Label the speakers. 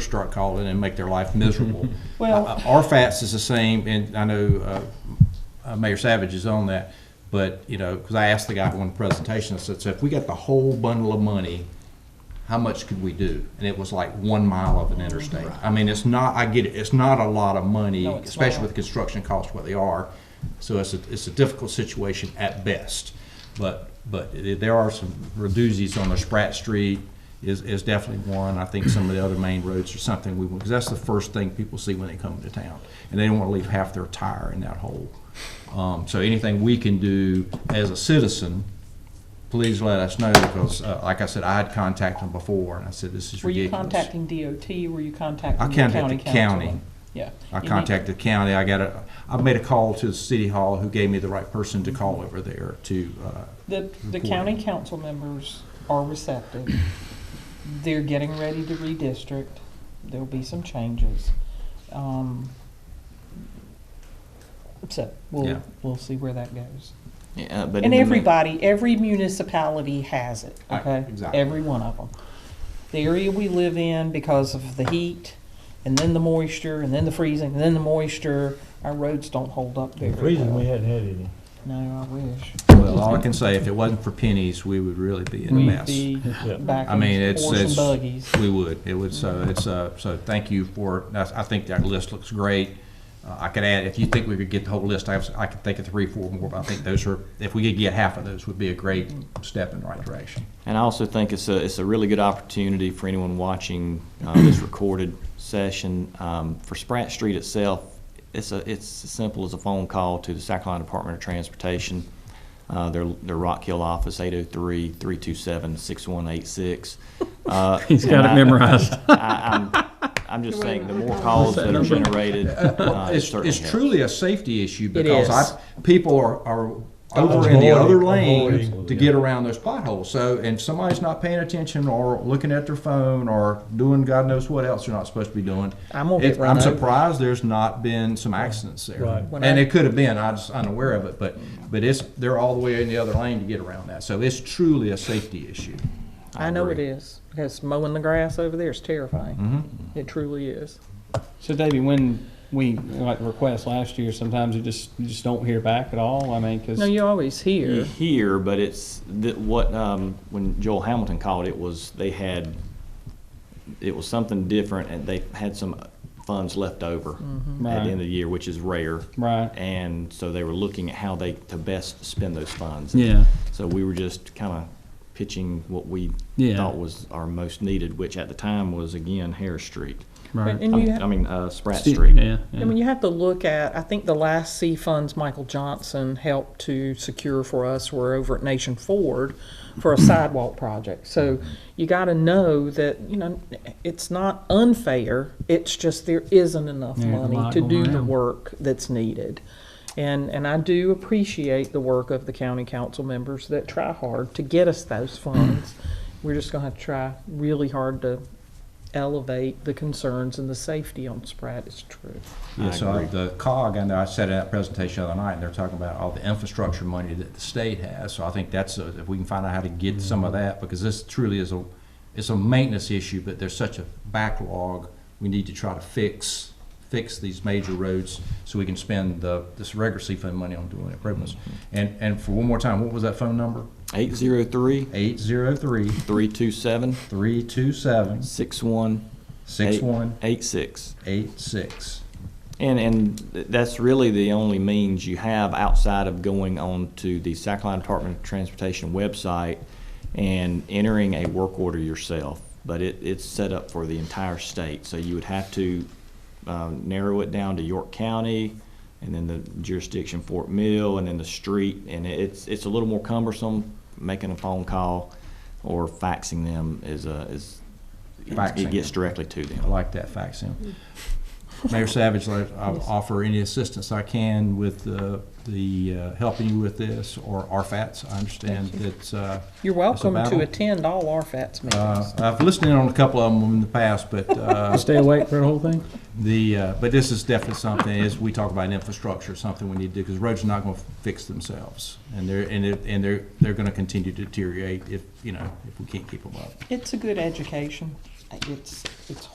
Speaker 1: start calling and make their life miserable.
Speaker 2: Well-
Speaker 1: Uh, RFAS is the same, and I know uh, uh, Mayor Savage is on that, but, you know, because I asked the guy one presentation, I said, so if we got the whole bundle of money, how much could we do? And it was like one mile of an interstate. I mean, it's not, I get it, it's not a lot of money,
Speaker 2: No, it's
Speaker 1: especially
Speaker 2: not.
Speaker 1: with construction costs where they are. So it's a, it's a difficult situation at best. But, but it- there are some reduces on the Spratt Street is, is definitely one. I think some of the other main roads or something we, because that's the first thing people see when they come to town. And they don't want to leave half their tire in that hole. Um, so anything we can do as a citizen, please let us know because, uh, like I said, I had contacted them before and I said, this is
Speaker 2: Were you
Speaker 1: ridiculous.
Speaker 2: contacting DOT, were you
Speaker 1: I
Speaker 2: contacting the county
Speaker 1: contacted the county.
Speaker 2: council? Yeah.
Speaker 1: I
Speaker 2: You need-
Speaker 1: contacted the county, I got a, I made a call to the city hall who gave me the right person to call
Speaker 2: Mm-hmm.
Speaker 1: over there to, uh,
Speaker 2: The, the
Speaker 1: report.
Speaker 2: county council members are receptive. They're getting ready to redistrict. There'll be some changes. Um, So
Speaker 1: Yeah.
Speaker 2: we'll, we'll see where that goes.
Speaker 3: Yeah, uh, but in
Speaker 2: And
Speaker 3: the mi-
Speaker 2: everybody, every municipality has it,
Speaker 1: Right,
Speaker 2: okay?
Speaker 1: exactly.
Speaker 2: Every one of them. The area we live in, because of the heat, and then the moisture, and then the freezing, and then the moisture, our roads don't hold up very well.
Speaker 4: Reason we hadn't had any.
Speaker 2: No, I wish.
Speaker 1: well, all I can say, if it wasn't for pennies, we would really be in a
Speaker 2: We'd
Speaker 1: mess.
Speaker 2: be
Speaker 4: Yeah.
Speaker 2: back
Speaker 1: I
Speaker 2: in
Speaker 1: mean, it's-
Speaker 2: horse and
Speaker 1: it's-
Speaker 2: buggies. Mm-hmm.
Speaker 1: We would, it would, so it's, uh, so thank you for, that's- I think that list looks great. Uh, I could add, if you think we could get the whole list, I have, I could think of three, four more, but I think those are, if we could get half of those, would be a great
Speaker 2: Mm-hmm.
Speaker 1: step in the right direction.
Speaker 3: And I also think it's a, it's a really good opportunity for anyone watching uh, this recorded session. Um, For Spratt Street itself, it's a, it's as simple as a phone call to the South Carolina Department of Transportation, uh, their, their Rock Hill office, 803-327-6186. Uh,
Speaker 5: He's got
Speaker 3: and
Speaker 5: it
Speaker 3: I-
Speaker 5: memorized.
Speaker 3: I- I'm, I'm just saying, the more calls that are generated, uh, it
Speaker 1: It's,
Speaker 3: certainly
Speaker 1: it's
Speaker 3: helps.
Speaker 1: truly a safety issue
Speaker 2: It
Speaker 1: because I, people are, are over
Speaker 4: Avoiding,
Speaker 1: in the other lane
Speaker 4: avoiding.
Speaker 1: to get around those potholes. So, and somebody's not paying attention or looking at their phone or doing God knows what else they're not supposed to be doing.
Speaker 2: I'm gonna get
Speaker 1: It's-
Speaker 2: run
Speaker 1: I'm
Speaker 2: over.
Speaker 1: surprised there's not been some accidents
Speaker 4: Right.
Speaker 1: there.
Speaker 2: When
Speaker 1: And
Speaker 2: I-
Speaker 1: it could have been, I was unaware of it, but, but it's, they're all the way in the other lane to get around that. So it's truly a safety issue.
Speaker 2: I know it is, because mowing the grass over there is terrifying.
Speaker 1: Mm-hmm.
Speaker 2: It truly is.
Speaker 5: So Davey, when we, like, request last year, sometimes you just, you just don't hear back at all, I mean,
Speaker 2: No,
Speaker 5: because.
Speaker 2: you always
Speaker 3: you
Speaker 2: hear.
Speaker 3: hear, but it's that what um, when Joel Hamilton called it was they had it was something different, and they had some funds left over at
Speaker 5: Right.
Speaker 3: the end of the year, which is rare.
Speaker 5: Right.
Speaker 3: And so they were looking at how they to best spend those funds.
Speaker 5: Yeah.
Speaker 3: So we were just kind of pitching what we
Speaker 5: Yeah.
Speaker 3: thought was our most needed, which at the time was again Harris Street.
Speaker 5: Right.
Speaker 3: I
Speaker 2: And you,
Speaker 3: mean,
Speaker 2: ha-
Speaker 3: I mean uh, Spratt
Speaker 5: Ste-
Speaker 3: Street.
Speaker 5: Yeah,
Speaker 2: I
Speaker 5: yeah.
Speaker 2: mean, you have to look at, I think the last C funds Michael Johnson helped to secure for us were over at Nation Ford for a sidewalk project. So you gotta know that, you know, it's not unfair, it's just there isn't enough
Speaker 5: There's a
Speaker 2: money
Speaker 5: lot
Speaker 2: to
Speaker 5: going
Speaker 2: do the
Speaker 5: around.
Speaker 2: work that's needed. And, and I do appreciate the work of the county council members that try hard to get us those funds. We're just gonna have to try really hard to elevate the concerns and the safety on Spratt is true.
Speaker 1: Yeah,
Speaker 3: I
Speaker 1: so
Speaker 3: agree.
Speaker 1: the COG, I know I said in that presentation the other night, they're talking about all the infrastructure money that the state has. So I think that's, a- if we can find out how to get some
Speaker 3: Mm-hmm.
Speaker 1: of that, because this truly is a, it's a maintenance issue, but there's such a backlog. We need to try to fix, fix these major roads so we can spend the, this regular C fund money on doing improvements.
Speaker 3: Mm-hmm.
Speaker 1: And, and for one more time, what was that phone number?
Speaker 3: 803
Speaker 1: Eight zero three
Speaker 3: 327
Speaker 1: three two seven 6186.
Speaker 3: 6186. And, and th- that's really the only means you have outside of going on to the South Carolina Department of Transportation website and entering a work order yourself. But it, it's set up for the entire state, so you would have to um, narrow it down to York County, and then the jurisdiction Fort Mill, and then the street. And it- it's, it's a little more cumbersome, making a phone call or faxing them is, a- is,
Speaker 1: Faxing.
Speaker 3: it gets directly to them.
Speaker 1: I like that fact, Sam. Mayor Savage, I- I'll offer any assistance I can with the, the, uh, helping you with this, or RFATs. I understand that, uh,
Speaker 2: You're welcome
Speaker 1: battle.
Speaker 2: to attend all RFAT's
Speaker 1: uh,
Speaker 2: meetings.
Speaker 1: I've listened in on a couple of them in the past, but, uh,
Speaker 5: Stay awake for the whole thing?
Speaker 1: the, uh, but this is definitely something, as we talk about infrastructure, something we need to do, because roads are not gonna fix themselves. And they're, and it, and they're, they're gonna continue to deteriorate if, you know, if we can't keep them up.
Speaker 2: It's a good education. It's, it's